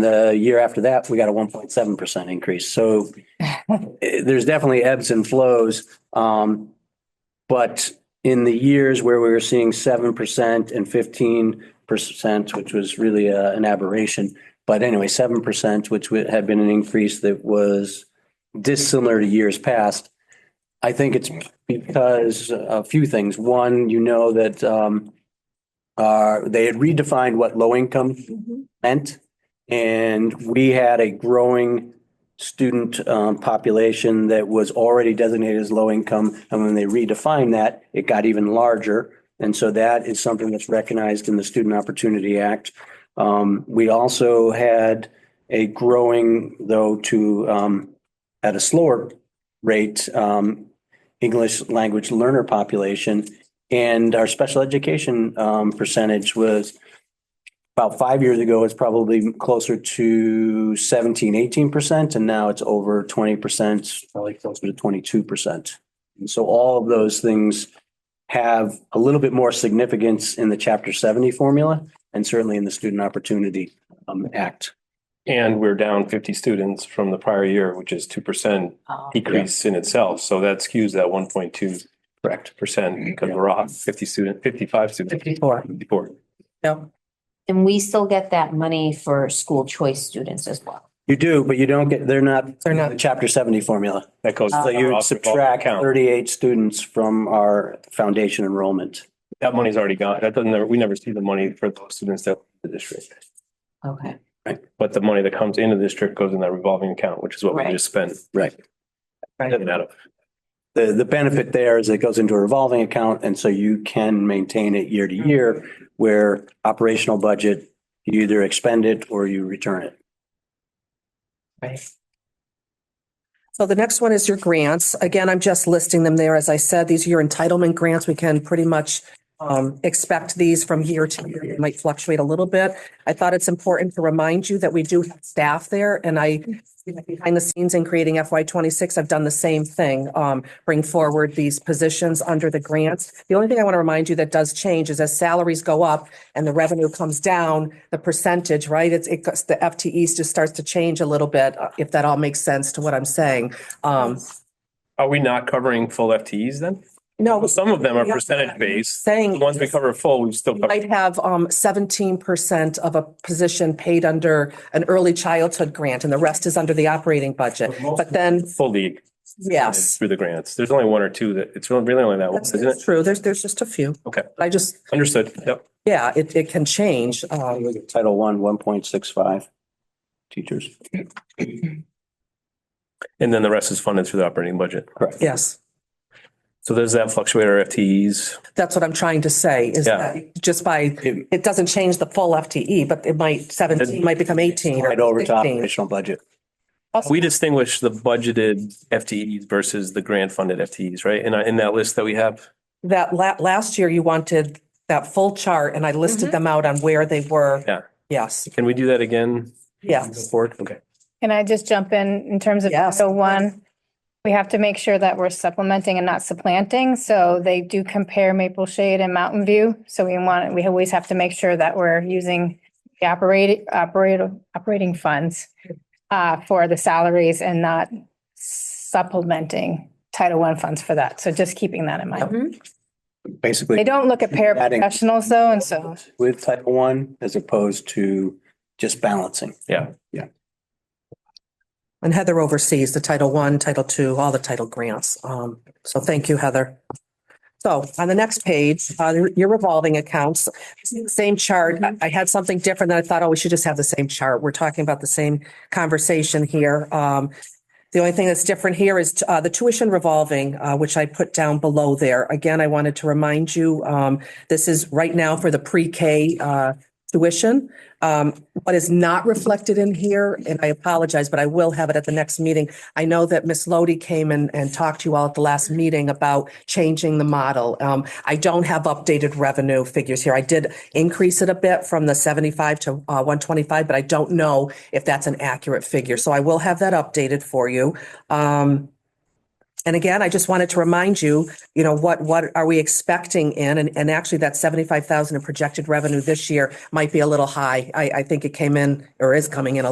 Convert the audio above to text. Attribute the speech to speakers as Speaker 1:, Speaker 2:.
Speaker 1: The year after that, we got a one point seven percent increase. So eh, there's definitely ebbs and flows. Um, but in the years where we were seeing seven percent and fifteen percent, which was really uh, an aberration. But anyway, seven percent, which would- had been an increase that was dissimilar to years past. I think it's because a few things. One, you know that um, uh, they had redefined what low income meant. And we had a growing student um, population that was already designated as low income. And when they redefined that, it got even larger. And so that is something that's recognized in the Student Opportunity Act. Um, We also had a growing, though, to, um, at a slower rate, um, English language learner population. And our special education um, percentage was about five years ago, it's probably closer to 17, 18%, and now it's over 20%, probably closer to 22%. And so all of those things have a little bit more significance in the Chapter 70 formula and certainly in the Student Opportunity um, Act.
Speaker 2: And we're down fifty students from the prior year, which is two percent
Speaker 3: Oh,
Speaker 2: decrease in itself. So that skews that one point two correct percent because we're off fifty student, fifty-five students.
Speaker 3: Fifty-four.
Speaker 2: Fifty-four.
Speaker 3: No. And we still get that money for school choice students as well.
Speaker 1: You do, but you don't get, they're not.
Speaker 4: They're not-
Speaker 1: the Chapter 70 formula.
Speaker 2: That goes.
Speaker 1: So you would
Speaker 2: off revolving
Speaker 1: subtract
Speaker 2: account.
Speaker 1: 38 students from our foundation enrollment.
Speaker 2: That money's already gone. That doesn't, we never see the money for those students that the district.
Speaker 3: Okay.
Speaker 2: But the money that comes into the district goes in that revolving account, which is what we
Speaker 3: Right.
Speaker 2: just spent.
Speaker 1: Right.
Speaker 2: Doesn't matter.
Speaker 1: The, the benefit there is it goes into a revolving account and so you can maintain it year to year where operational budget, you either expend it or you return it.
Speaker 3: Right.
Speaker 4: So the next one is your grants. Again, I'm just listing them there. As I said, these are your entitlement grants. We can pretty much um, expect these from year to year. It might fluctuate a little bit. I thought it's important to remind you that we do have staff there and I, behind the scenes in creating FY twenty-six, I've done the same thing, um, bring forward these positions under the grants. The only thing I want to remind you that does change is as salaries go up and the revenue comes down, the percentage, right? It's, it goes, the FTEs just starts to change a little bit, uh, if that all makes sense to what I'm saying. Um,
Speaker 2: Are we not covering full FTEs then?
Speaker 4: no,
Speaker 2: Well, some of them are
Speaker 4: Yeah.
Speaker 2: percentage based.
Speaker 4: saying.
Speaker 2: The ones we cover full, we still
Speaker 4: You
Speaker 2: cover.
Speaker 4: Might have um seventeen percent of a position paid under an early childhood grant and the rest is under the operating budget. But then,
Speaker 2: fully
Speaker 4: yes,
Speaker 2: through the grants. There's only one or two that, it's really really only that one,
Speaker 4: that's
Speaker 2: isn't
Speaker 4: that's
Speaker 2: Oh, it?
Speaker 4: true. There's, there's just a few.
Speaker 2: Okay.
Speaker 4: I just,
Speaker 2: Understood. Yep.
Speaker 4: yeah, it, it can change. Um,
Speaker 1: Title one, one point six five teachers.
Speaker 2: And then the rest is funded through the operating budget.
Speaker 1: Correct.
Speaker 4: yes,
Speaker 2: So does that fluctuate our FTEs?
Speaker 4: that's what I'm trying to say is
Speaker 2: Yeah.
Speaker 4: that just by,
Speaker 1: It-
Speaker 4: it doesn't change the full FTE, but it might seventeen, might become eighteen
Speaker 1: Right over
Speaker 4: or
Speaker 1: to
Speaker 4: fifteen.
Speaker 1: operational budget.
Speaker 2: We distinguish the budgeted FTEs versus the grant funded FTEs, right? In, in that list that we have.
Speaker 4: That la- last year you wanted that full chart and I listed them out on where they were.
Speaker 2: Yeah.
Speaker 4: Yes,
Speaker 2: Can we do that again?
Speaker 4: yes.
Speaker 2: Board? Okay.
Speaker 5: Can I just jump in, in terms of
Speaker 4: Yes.
Speaker 5: Title One? We have to make sure that we're supplementing and not supplanting, so they do compare Maple Shade and Mountain View. So we want, we always have to make sure that we're using the operating, operating, operating funds uh, for the salaries and not supplementing Title One funds for that. So just keeping that in mind. They
Speaker 1: Basically,
Speaker 5: don't look at
Speaker 1: Adding-
Speaker 5: paraprofessionals though, and so
Speaker 1: with title one as opposed to just balancing.
Speaker 4: And Heather oversees the Title I, Title II, all the title grants. Um, so thank you, Heather. So on the next page, uh, your revolving accounts, same chart. I- I had something different that I thought, oh, we should just have the same chart. We're talking about the same conversation here. Um, the only thing that's different here is, uh, the tuition revolving, uh, which I put down below there. Again, I wanted to remind you, um, this is right now for the pre-K, uh, tuition. Um, what is not reflected in here, and I apologize, but I will have it at the next meeting. I know that Ms. Lodi came and, and talked to you all at the last meeting about changing the model. Um, I don't have updated revenue figures here. I did increase it a bit from the seventy-five to, uh, one twenty-five, but I don't know if that's an accurate figure. So I will have that updated for you. Um, and again, I just wanted to remind you, you know, what, what are we expecting in? And, and actually that 75,000 in projected revenue this year might be a little high. I, I think it came in or is coming in a